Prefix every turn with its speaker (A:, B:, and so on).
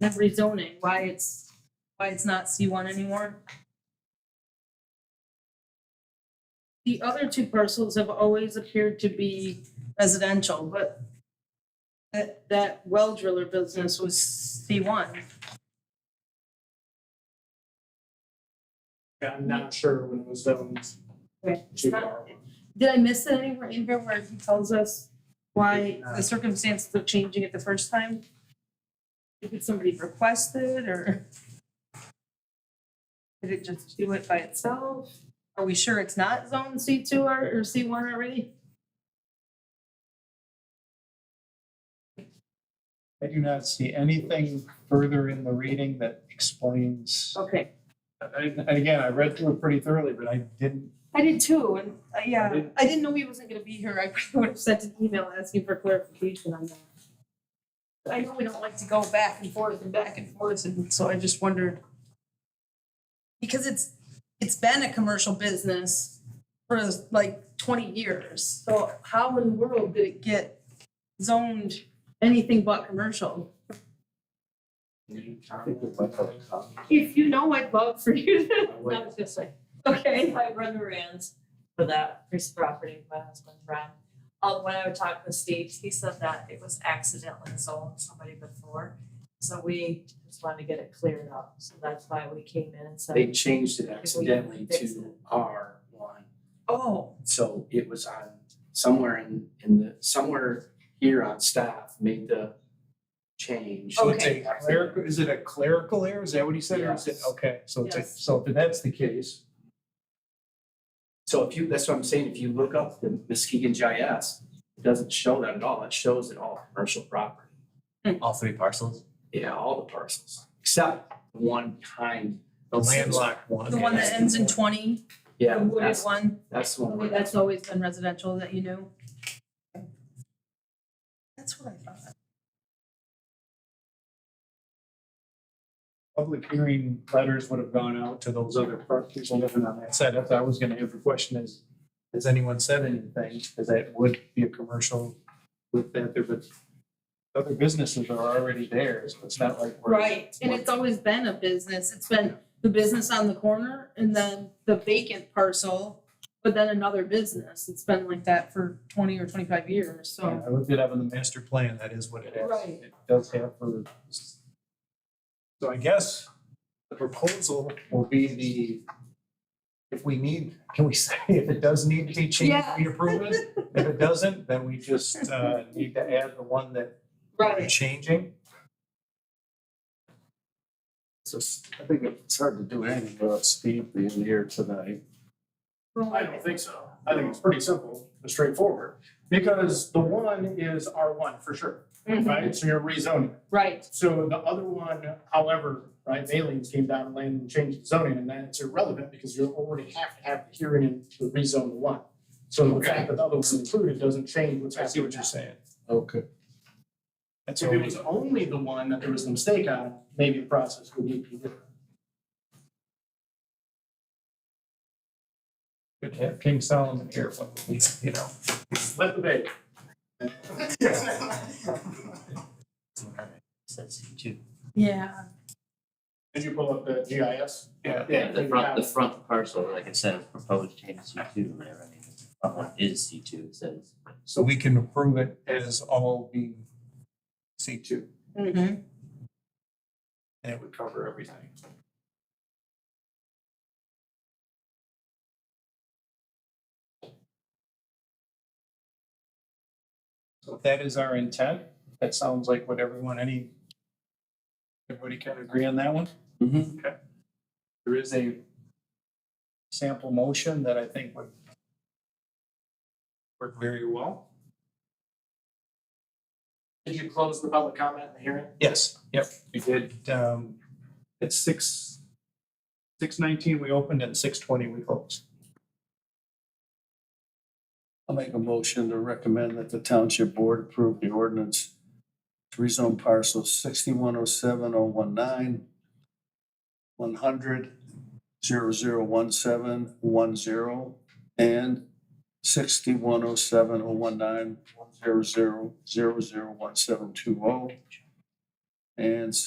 A: that rezoning, why it's, why it's not C one anymore. The other two parcels have always appeared to be residential, but that, that well driller business was C one.
B: I'm not sure when it was zoned
A: Right.
B: to R one.
A: Did I miss it anywhere in here where he tells us why the circumstances of changing it the first time? Did somebody request it or? Did it just do it by itself? Are we sure it's not zone C two or, or C one already?
C: I do not see anything further in the reading that explains.
A: Okay,
C: And and again, I read through it pretty thoroughly, but I didn't,
A: I did too, and, uh,
B: I
A: yeah,
B: did.
A: I didn't know he wasn't gonna be here, I probably would have sent an email asking for clarification on that. I know we don't like to go back and forth and back and forth, and so I just wondered. Because it's, it's been a commercial business for like twenty years, so how in the world did it get zoned anything but commercial? If you know, I'd love for you to,
B: I
D: I
B: would-
D: was gonna say,
A: okay,
D: if I run the errands for that piece of property, with my husband Ron, um, when I would talk with Steve, he said that it was accidentally sold to somebody before. So we just wanted to get it cleared up, so that's why we came in and
B: They
D: said,
B: changed it accidentally
D: fix
B: to
D: it.
B: R one.
A: oh,
B: So it was on somewhere in in the, somewhere here on staff made the change.
C: so it's a clerical, is it a clerical error? Is that what he said? Or is it,
B: Yes.
C: okay, so it's a,
D: Yes.
C: so if that's the case,
B: So if you, that's what I'm saying, if you look up the Muskegon GIS, it doesn't show that at all, it shows it all commercial property.
E: All three parcels?
B: Yeah, all the parcels, except one behind.
C: the landlocked one.
A: the one that ends in twenty, the
B: Yeah,
A: wooded
B: that's,
A: one.
B: that's the one.
A: Okay,
B: where-
A: that's always been residential that you knew? That's what I thought.
C: Public hearing letters would have gone out to those other par- people living on that side. That's, I was gonna have the question is, has anyone said anything? Cause that would be a commercial with that there, but other businesses are already there, so it's not like we're.
A: Right, and it's always been a business. It's been the business on the corner and then the vacant parcel, but then another business. It's been like that for twenty or twenty-five years, so.
C: Yeah, I looked it up in the master plan, that is what it is.
A: Right.
C: It does have for. So I guess the proposal will be the, if we need, can we say if it does need to be changed,
A: Yeah.
C: we approve it? If it doesn't, then we just uh need to add the one that we're changing.
F: So s- I think it's hard to do anything without Steve being here tonight.
C: I
A: Right.
C: don't think so. I think it's pretty simple and straightforward, because the one is R one for sure,
A: Mhm.
C: right? So you're rezoning.
A: Right,
C: So the other one, however, right, aliens came down and landed and changed the zoning, and that's irrelevant because you already have to have the hearing and to rezone the one. So the fact that the other one's included doesn't change what's happening. I see what you're saying.
F: Okay.
C: If it was only the one that there was a mistake on, maybe the process would be different. Good to have King Solomon here, you know. Let the bait.
E: Says two.
A: yeah.
C: Did you pull up the GIS?
E: Yeah.
C: Yeah.
E: The front, the front parcel, like it says, proposed change C two, or whatever, I mean, the front one is C two, it says.
C: So we can approve it as all being C two,
A: Mhm.
C: and it would cover everything. So if that is our intent, that sounds like what everyone, any, everybody can agree on that one?
B: Mhm.
C: Okay. There is a sample motion that I think would work very well.
B: Did you close the public comment and the hearing?
C: Yes, yep, we did, um, at six, six nineteen we opened and six twenty we closed.
F: I'll make a motion to recommend that the township board approve the ordinance to rezone parcels sixty-one oh seven oh one nine, one hundred, zero zero one seven one zero, and sixty-one oh seven oh one nine, one zero zero, zero zero one seven two oh, and